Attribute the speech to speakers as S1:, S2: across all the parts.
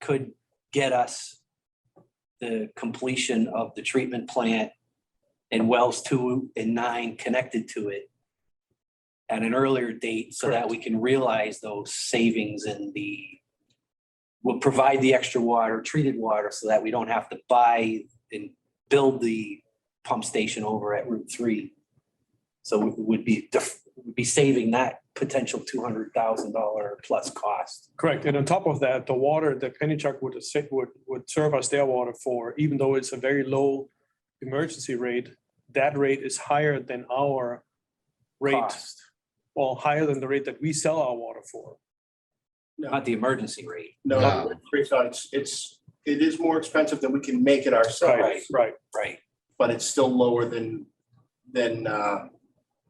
S1: could get us the completion of the treatment plant and wells two and nine connected to it at an earlier date so that we can realize those savings in the will provide the extra water, treated water, so that we don't have to buy and build the pump station over at Route Three. So we would be, def- would be saving that potential two hundred thousand dollar plus cost.
S2: Correct. And on top of that, the water that Pennachuck would, se- would, would serve us their water for, even though it's a very low emergency rate, that rate is higher than our rate,
S1: cost,
S2: well, higher than the rate that we sell our water for.
S1: Not the emergency rate.
S3: No,
S4: No.
S3: it's, not. It's- it's, it is more expensive than we can make it ourselves,
S2: Right.
S1: Right.
S3: but it's still lower than, than uh,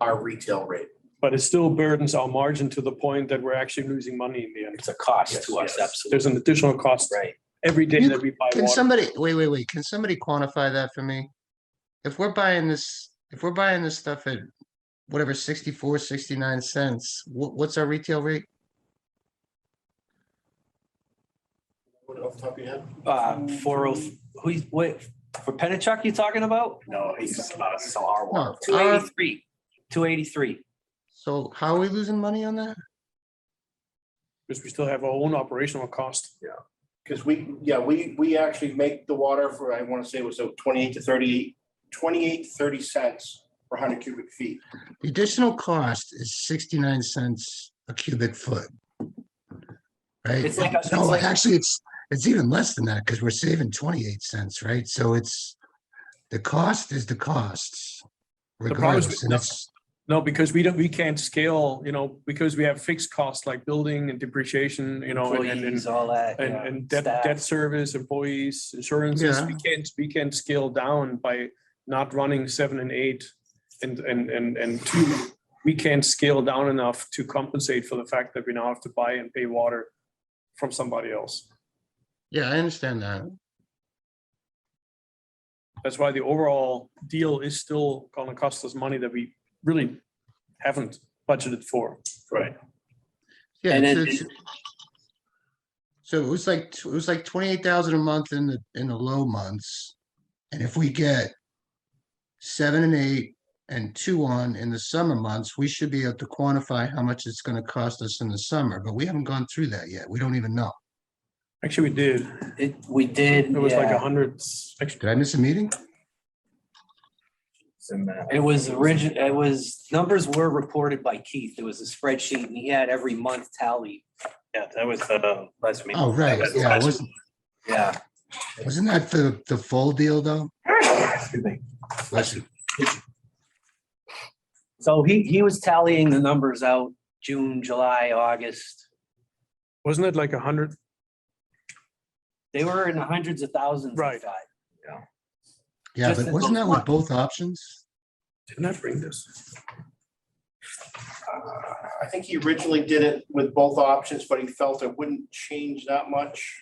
S3: our retail rate.
S2: But it still burdens our margin to the point that we're actually losing money in the end.
S1: It's a cost to us,
S3: Yes, yes.
S1: absolutely.
S2: There's an additional cost
S1: Right.
S2: every day
S4: You-
S2: that we buy
S4: Can
S2: water.
S4: somebody, wait, wait, wait, can somebody quantify that for me? If we're buying this, if we're buying this stuff at whatever 64, 69 cents, what, what's our retail rate?
S3: What, Off the top of your head?
S1: Uh, four oh, who, what, for Pennachuck you talking about?
S3: No, he's not, so our
S4: No,
S1: Two
S4: our-
S1: eighty-three, two eighty-three.
S4: So how are we losing money on that?
S2: Because we still have our own operational cost.
S3: Because we, yeah, we, we actually make the water for, I want to say it was uh, 28 to 30, 28, 30 cents per 100 cubic feet.
S4: The additional cost is 69 cents a cubic foot. Right?
S1: It's like a- it's
S4: No,
S1: like-
S4: actually, it's, it's even less than that because we're saving 28 cents, right? So it's, the cost is the costs
S2: The problem is we-
S4: regardless. And
S2: no.
S4: it's,
S2: No, because we don't, we can't scale, you know, because we have fixed costs like building and depreciation, you know, and- and, and
S1: Employees, all that.
S2: And,
S1: yeah,
S2: and debt,
S1: staff.
S2: debt service, employees, insurances, we can't, we can't scale down by not running seven and eight. And, and, and, and two, we can't scale down enough to compensate for the fact that we now have to buy and pay water from somebody else.
S4: yeah, I understand that.
S2: That's why the overall deal is still gonna cost us money that we really haven't budgeted for. Right.
S4: Yeah,
S1: And
S4: it's-
S1: then-
S4: it's- So it was like, t- it was like twenty-eight thousand a month in the, in the low months. And if we get seven and eight and two on in the summer months, we should be able to quantify how much it's gonna cost us in the summer, but we haven't gone through that yet. We don't even know.
S2: Actually, we did.
S1: It, we did.
S2: It was like
S1: yeah.
S2: a hundred, actually,
S4: Did I miss a meeting?
S1: It was origin, it was, numbers were reported by Keith. There was a spreadsheet and he had every month tally.
S5: Yeah, that was, uh, last meeting.
S4: Oh, right,
S5: That's
S4: yeah,
S5: last-
S4: wasn't,
S1: Yeah.
S4: wasn't that the, the full deal though?
S5: Excuse me.
S4: Bless you.
S1: So he, he was tallying the numbers out, June, July, August.
S2: wasn't it like a hundred
S1: They were in the hundreds of thousands.
S2: Right.
S4: Yeah,
S1: Just
S4: but
S1: in
S4: wasn't
S1: those
S4: that with both options?
S2: Didn't I bring this?
S3: Uh, I think he originally did it with both options, but he felt it wouldn't change that much.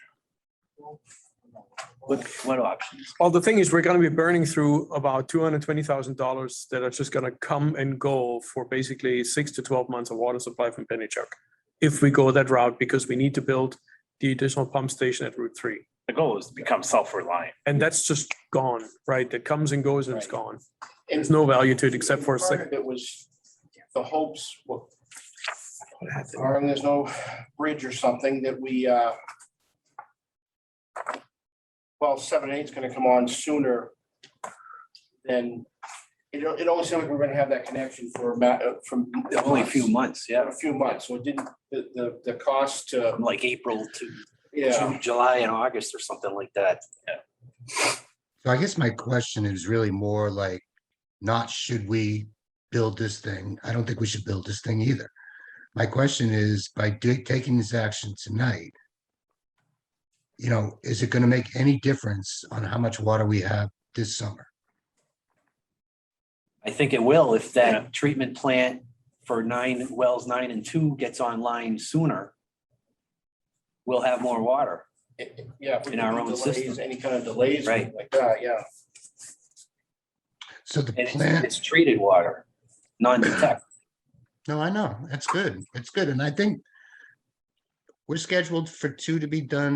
S1: What, what options?
S2: Well, the thing is, we're gonna be burning through about two hundred twenty thousand dollars that are just gonna come and go for basically six to twelve months of water supply from Pennachuck. If we go that route, because we need to build the additional pump station at Route Three.
S5: The goal is to become self-reliant.
S2: And that's just gone, right? That comes and goes and it's gone.
S3: And
S2: There's no value to it except for a
S3: part
S2: second.
S3: of It was the hopes, well, barring there's no bridge or something that we, uh, well, seven, eight's gonna come on sooner than, it, it always seemed like we we're gonna have that connection for about, from.
S1: Only a few months, yeah,
S3: A few months, so it didn't, the, the, the cost to,
S1: from like April to
S3: yeah,
S1: June, July and August or something like that.
S4: So I guess my question is really more like, not should we build this thing? I don't think we should build this thing either. My question is, by do- taking this action tonight, you know, is it gonna make any difference on how much water we have this summer?
S1: I think it will if that treatment plant for nine, wells nine and two gets online sooner. We'll have more water.
S3: yeah. if we
S1: In our
S3: could do
S1: own
S3: delays,
S1: system.
S3: Any kind of delays,
S1: Right.
S3: like that, yeah.
S4: So the
S1: And it's,
S4: plan,
S1: it's treated water, non-detect.
S4: no, I know, that's good, it's good, and I think we're scheduled for two to be done